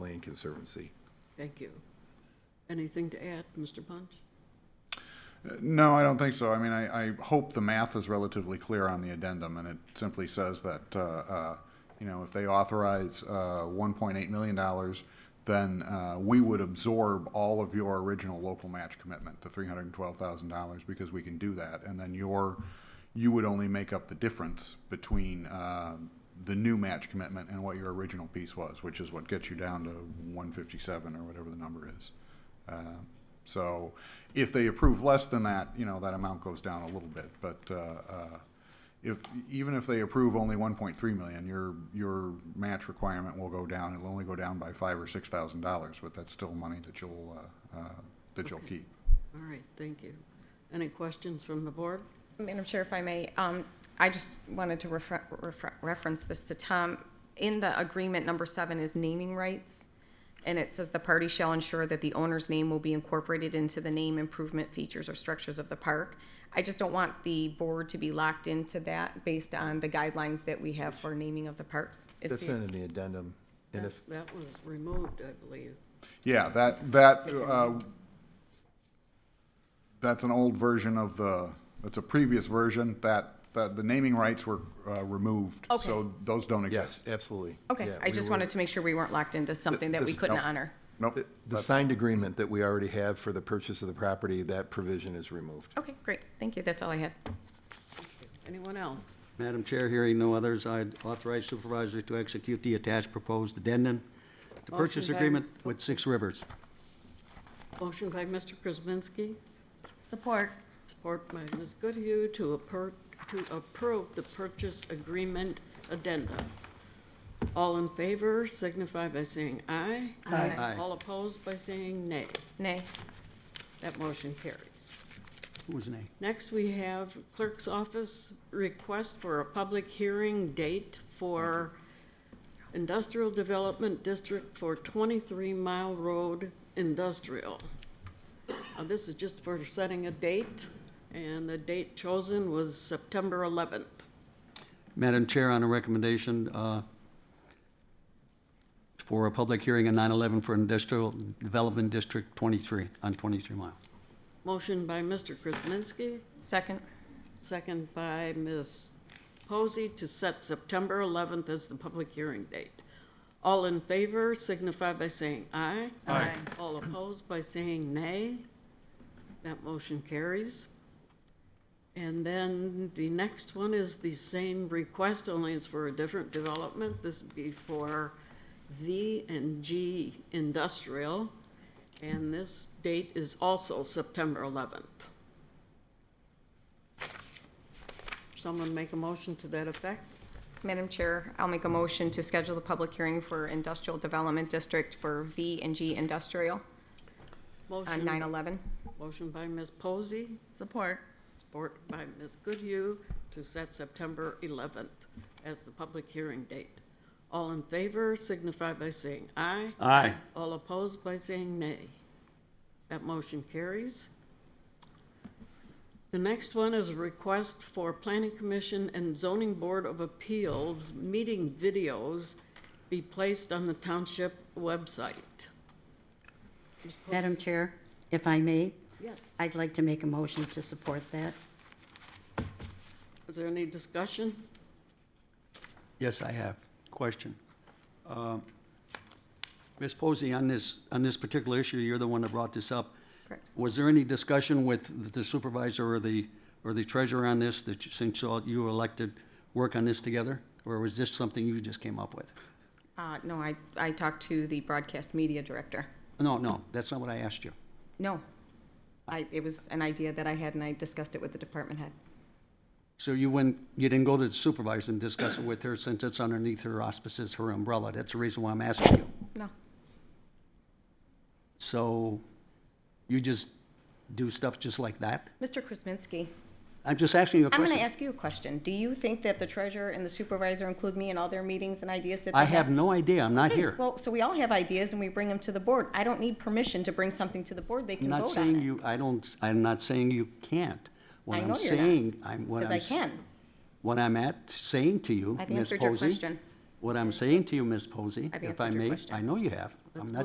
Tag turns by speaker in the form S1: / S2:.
S1: Land Conservancy.
S2: Thank you. Anything to add, Mr. Punch?
S3: No, I don't think so. I mean, I, I hope the math is relatively clear on the addendum, and it simply says that, uh, uh, you know, if they authorize, uh, one point eight million dollars, then, uh, we would absorb all of your original local match commitment, the three hundred and twelve thousand dollars, because we can do that, and then your, you would only make up the difference between, uh, the new match commitment and what your original piece was, which is what gets you down to one fifty-seven or whatever the number is. Uh, So if they approve less than that, you know, that amount goes down a little bit. But uh, uh, if, even if they approve only 1.3 million, your, your match requirement will go down. It'll only go down by five or $6,000, but that's still money that you'll, uh, uh, that you'll
S2: Okay.
S3: keep.
S2: All right, thank you. Any questions from the board?
S4: Madam Chair, if I may, um, I just wanted to refer- refer- reference this to Tom. In the agreement, number seven is naming rights, and it says the party shall ensure that the owner's name will be incorporated into the name, improvement, features, or structures of the park. I just don't want the board to be locked into that based on the guidelines that we have for naming of the parks. Is
S5: That's
S4: the-
S5: in the addendum, and if,
S2: That- That was removed, I believe.
S3: Yeah, that, that, uh, that's an old version of the, that's a previous version. That, that the naming rights were uh, removed.
S4: Okay.
S3: So those don't
S5: yes,
S3: exist.
S5: absolutely.
S4: Okay,
S5: Yeah,
S4: I
S5: we
S4: just
S5: were-
S4: wanted to make sure we weren't locked into something that we
S3: This-
S4: couldn't
S3: nope.
S4: honor.
S3: Nope.
S5: The- The signed agreement that we already have for the purchase of the property, that provision is removed.
S4: Okay, great, thank you, that's all I had.
S2: Anyone else?
S6: Madam Chair, hearing no others, I authorize supervisor to execute the attached proposed addendum to purchase
S2: Motion by-
S6: agreement with Six Rivers.
S2: Motion by Mr. Krasinski,
S7: Support.
S2: support by Ms. Goodhue to appro, to approve the purchase agreement addendum. All in favor signify by saying aye.
S7: Aye.
S6: Aye.
S2: All opposed by saying nay.
S4: Nay,
S2: That motion carries.
S6: Who was nay?
S2: Next, we have Clerk's Office request for a public hearing date for Industrial Development District for 23 Mile Road Industrial. Uh, This is just for setting a date, and the date chosen was September 11th.
S6: Madam Chair, on a recommendation uh, for a public hearing on 9/11 for Industrial Development District 23, on 23 Mile.
S2: Motion by Mr. Krasinski,
S4: second,
S2: second by Ms. Posey to set September 11th as the public hearing date. All in favor signify by saying aye.
S7: Aye.
S2: All opposed by saying nay. That motion carries. And then the next one is the same request, only it's for a different development. This would be for V and G Industrial, and this date is also September 11th. Someone make a motion to that effect?
S4: Madam Chair, I'll make a motion to schedule the public hearing for Industrial Development District for V and G Industrial on
S2: Motion.
S4: 9/11.
S2: Motion by Ms. Posey,
S7: Support.
S2: support by Ms. Goodhue, to set September 11th as the public hearing date. All in favor signify by saying aye.
S6: Aye.
S2: All opposed by saying nay. That motion carries. The next one is a request for Planning Commission and Zoning Board of Appeals meeting videos be placed on the township website. Ms. Posey?
S7: Madam Chair, if I may,
S2: Yes.
S7: I'd like to make a motion to support that.
S2: Is there any discussion?
S6: Yes, I have. Question. Um, Ms. Posey, on this, on this particular issue, you're the one that brought this up.
S4: Correct.
S6: Was there any discussion with the supervisor or the, or the treasurer on this, that you- since all you were elected, work on this together? Or was this something you just came up with?
S4: Uh, no, I, I talked to the broadcast media director.
S6: No, no, that's not what I asked you.
S4: No. I, it was an idea that I had and I discussed it with the department head.
S6: So you went, you didn't go to the supervisor and discuss it with her since it's underneath her auspices, her umbrella? That's the reason why I'm asking you.
S4: No,
S6: So you just do stuff just like that?
S4: Mr. Krasinski,
S6: I'm just asking you a
S4: I'm
S6: question.
S4: going to ask you a question. Do you think that the treasurer and the supervisor include me in all their meetings and ideas that they
S6: I
S4: have?
S6: have no idea. I'm not
S4: Okay,
S6: here.
S4: Well, so we all have ideas and we bring them to the board. I don't need permission to bring something to the board. They
S6: I'm
S4: can
S6: not
S4: vote on
S6: saying
S4: it.
S6: you, I don't, I'm not saying you can't. What
S4: I
S6: I'm
S4: know you're not,
S6: saying, I'm, what I'm.
S4: Because I
S6: s-
S4: can.
S6: What I'm at, saying to you,
S4: I've
S6: Ms.
S4: answered your
S6: Posey.
S4: question.
S6: What I'm saying to you, Ms. Posey,
S4: I've
S6: if I
S4: answered your
S6: may,
S4: question.
S6: I know you have. I'm not